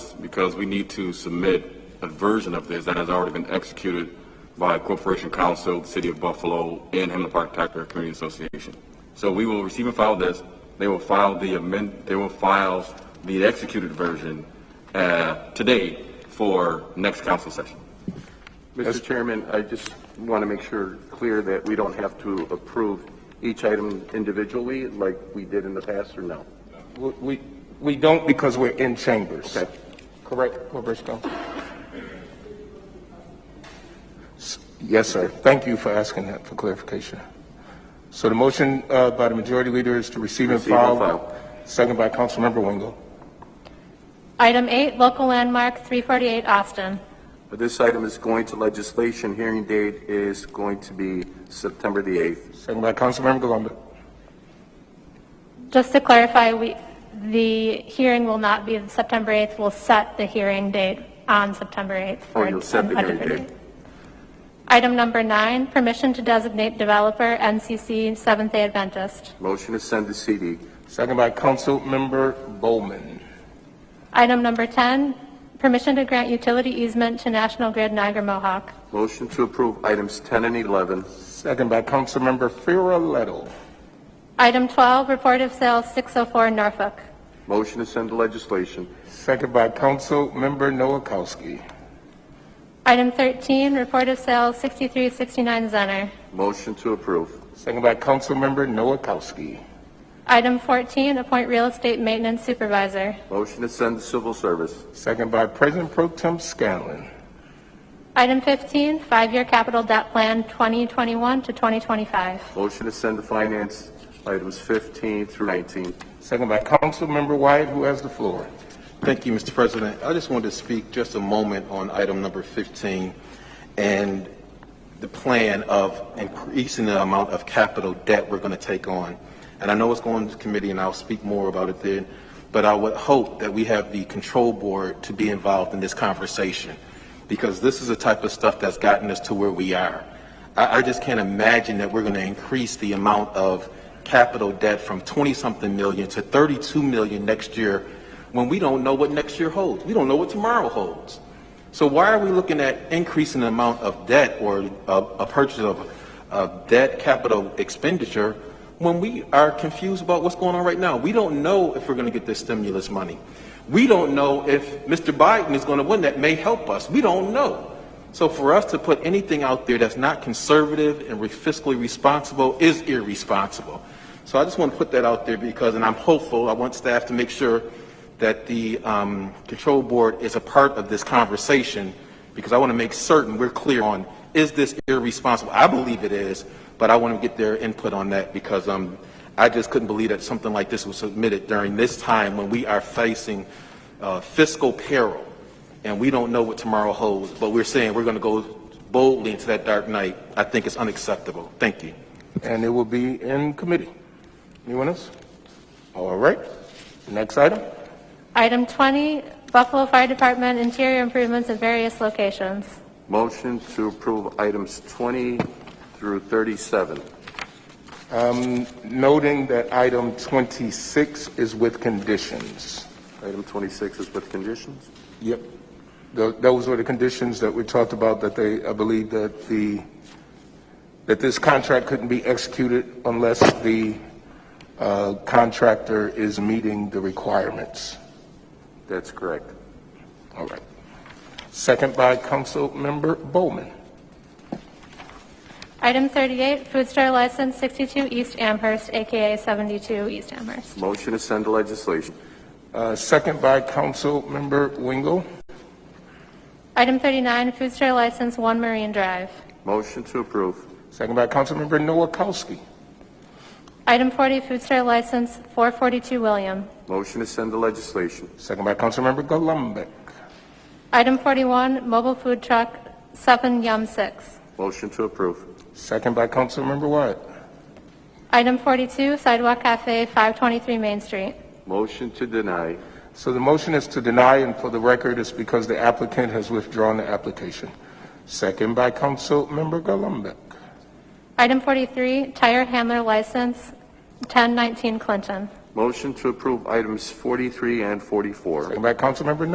because we need to submit a version of this that has already been executed by Corporation Council, the City of Buffalo, and Hamlet Park Taxpayer Community Association. So we will receive and file this. They will file the amend, they will file the executed version uh, today for next council session. Mr. Chairman, I just want to make sure, clear that we don't have to approve each item individually like we did in the past, or no? We- We, we don't because we're in chambers. Okay. Correct, Roberto? S- Yes, sir. Thank you for asking that for clarification. So the motion uh, by the majority leader is to receive and Receive and file. file. Second by Councilmember Wingo. Item eight, local landmark 348 Austin. But This item is going to legislation. Hearing date is going to be September the 8th. Second by Councilmember Galunde. Just to clarify, we, the hearing will not be September 8th. We'll set the hearing date on September 8th. for Oh, you'll set the a hearing different date. Item number nine, permission to designate developer NCC Seventh-day Adventist. Motion to send to CD. Second by Councilmember Bowman. Item number 10, permission to grant utility easement to National Grid Niagara Mohawk. Motion to approve items 10 and 11. Second by Councilmember Farrelletto. Item 12, report of sales 604 Norfolk. Motion to send to legislation. Second by Councilmember Noakowski. Item 13, report of sales 6369 Zenner. Motion to approve. Second by Councilmember Noakowski. Item 14, appoint real estate maintenance supervisor. Motion to send to civil service. Second by President Pro Tem Scanlon. Item 15, five-year capital debt plan 2021 to 2025. Motion to send to finance items 15 through 19. Second by Councilmember Wyatt, who has the floor. Thank you, Mr. President. I just wanted to speak just a moment on item number 15 and the plan of increasing the amount of capital debt we're going to take on. And I know it's going to committee, and I'll speak more about it then, but I would hope that we have the control board to be involved in this conversation, because this is the type of stuff that's gotten us to where we are. I, I just can't imagine that we're going to increase the amount of capital debt from 20-something million to 32 million next year when we don't know what next year holds. We don't know what tomorrow holds. So why are we looking at increasing the amount of debt or a, a purchase of, of debt capital expenditure when we are confused about what's going on right now? We don't know if we're going to get this stimulus money. We don't know if Mr. Biden is going to win. That may help us. We don't know. So for us to put anything out there that's not conservative and re- fiscally responsible is irresponsible. So I just want to put that out there because, and I'm hopeful, I want staff to make sure that the um, control board is a part of this conversation because I want to make certain we're clear on, is this irresponsible? I believe it is, but I want to get their input on that because um, I just couldn't believe that something like this was submitted during this time when we are facing uh, fiscal peril and we don't know what tomorrow holds, but we're saying we're going to go boldly into that dark night. I think it's unacceptable. Thank you. And it will be in committee. Anyone else? All right. Next item. Item 20, Buffalo Fire Department interior improvements at various locations. Motion to approve items 20 through 37. Noting that item 26 is with conditions. Item 26 is with conditions. Yep. Tho- Those were the conditions that we talked about, that they, I believe that the, that this contract couldn't be executed unless the uh, contractor is meeting the requirements. That's correct. All right. Second by Councilmember Bowman. Item 38, food store license 62 East Amherst, AKA 72 East Amherst. Motion to send to legislation. Uh, Second by Councilmember Wingo. Item 39, food store license 1 Marine Drive. Motion to approve. Second by Councilmember Noakowski. Item 40, food store license 442 William. Motion to send to legislation. Second by Councilmember Gullumbeck. Item 41, mobile food truck 7 Yum 6. Motion to approve. Second by Councilmember Wyatt. Item 42, Sidewalk Cafe, 523 Main Street. Motion to deny. So the motion is to deny, and for the record, it's because the applicant has withdrawn the application. Second by Councilmember Gullumbeck. Item 43, Tire Handler License, 1019 Clinton. Motion to approve items 43 and 44. Second by Councilmember